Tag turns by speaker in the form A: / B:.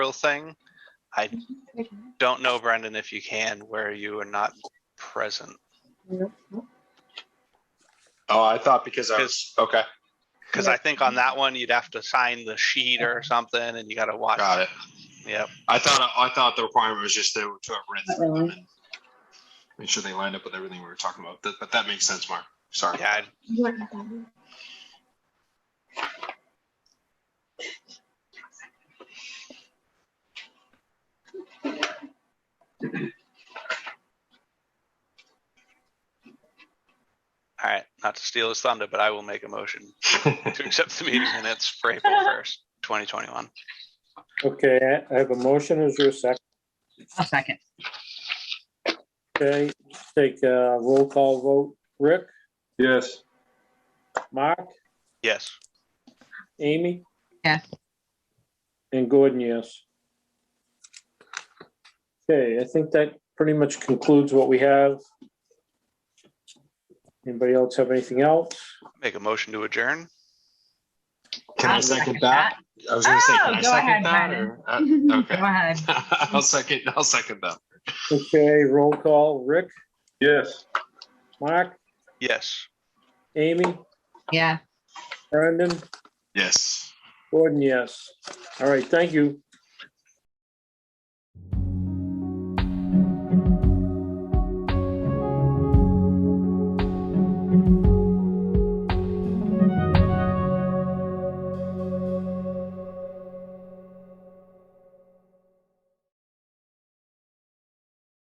A: real thing. I don't know, Brendan, if you can, where you are not present.
B: Oh, I thought because I was, okay,
A: Because I think on that one, you'd have to sign the sheet or something and you gotta watch.
B: got it.
A: Yep.
B: I thought, I thought the requirement was just to, to have read
C: Not
B: through them
C: really.
B: and make sure they lined up with everything we were talking about, That- but that makes sense, Mark. Sorry.
A: Yeah, I'd-
D: You weren't at that one.
A: all right, not to steal his thunder, but I will make a motion to accept the meeting minutes for April first, twenty twenty-one.
E: Okay, I- I have a motion. Is there a second?
C: I'll second.
E: Okay, take a roll call vote. Rick,
F: Yes,
E: Mark,
A: Yes,
E: Amy?
C: Yes.
E: And Gordon, yes. Okay, I think that pretty much concludes what we have. Anybody else have anything else?
A: make a motion to adjourn.
B: Can I
C: I'll
B: second that? I was gonna say, can
C: Oh,
B: I
C: go
B: second
C: ahead,
B: that
C: Brennan.
B: or? uh,
C: Go
B: Okay,
C: ahead.
B: I'll second, I'll second that.
E: Okay, roll call. Rick,
F: yes.
E: Mark,
A: Yes,
E: Amy,
C: Yeah.
E: Brendan,
B: Yes.
E: Gordon, yes. All right, thank you.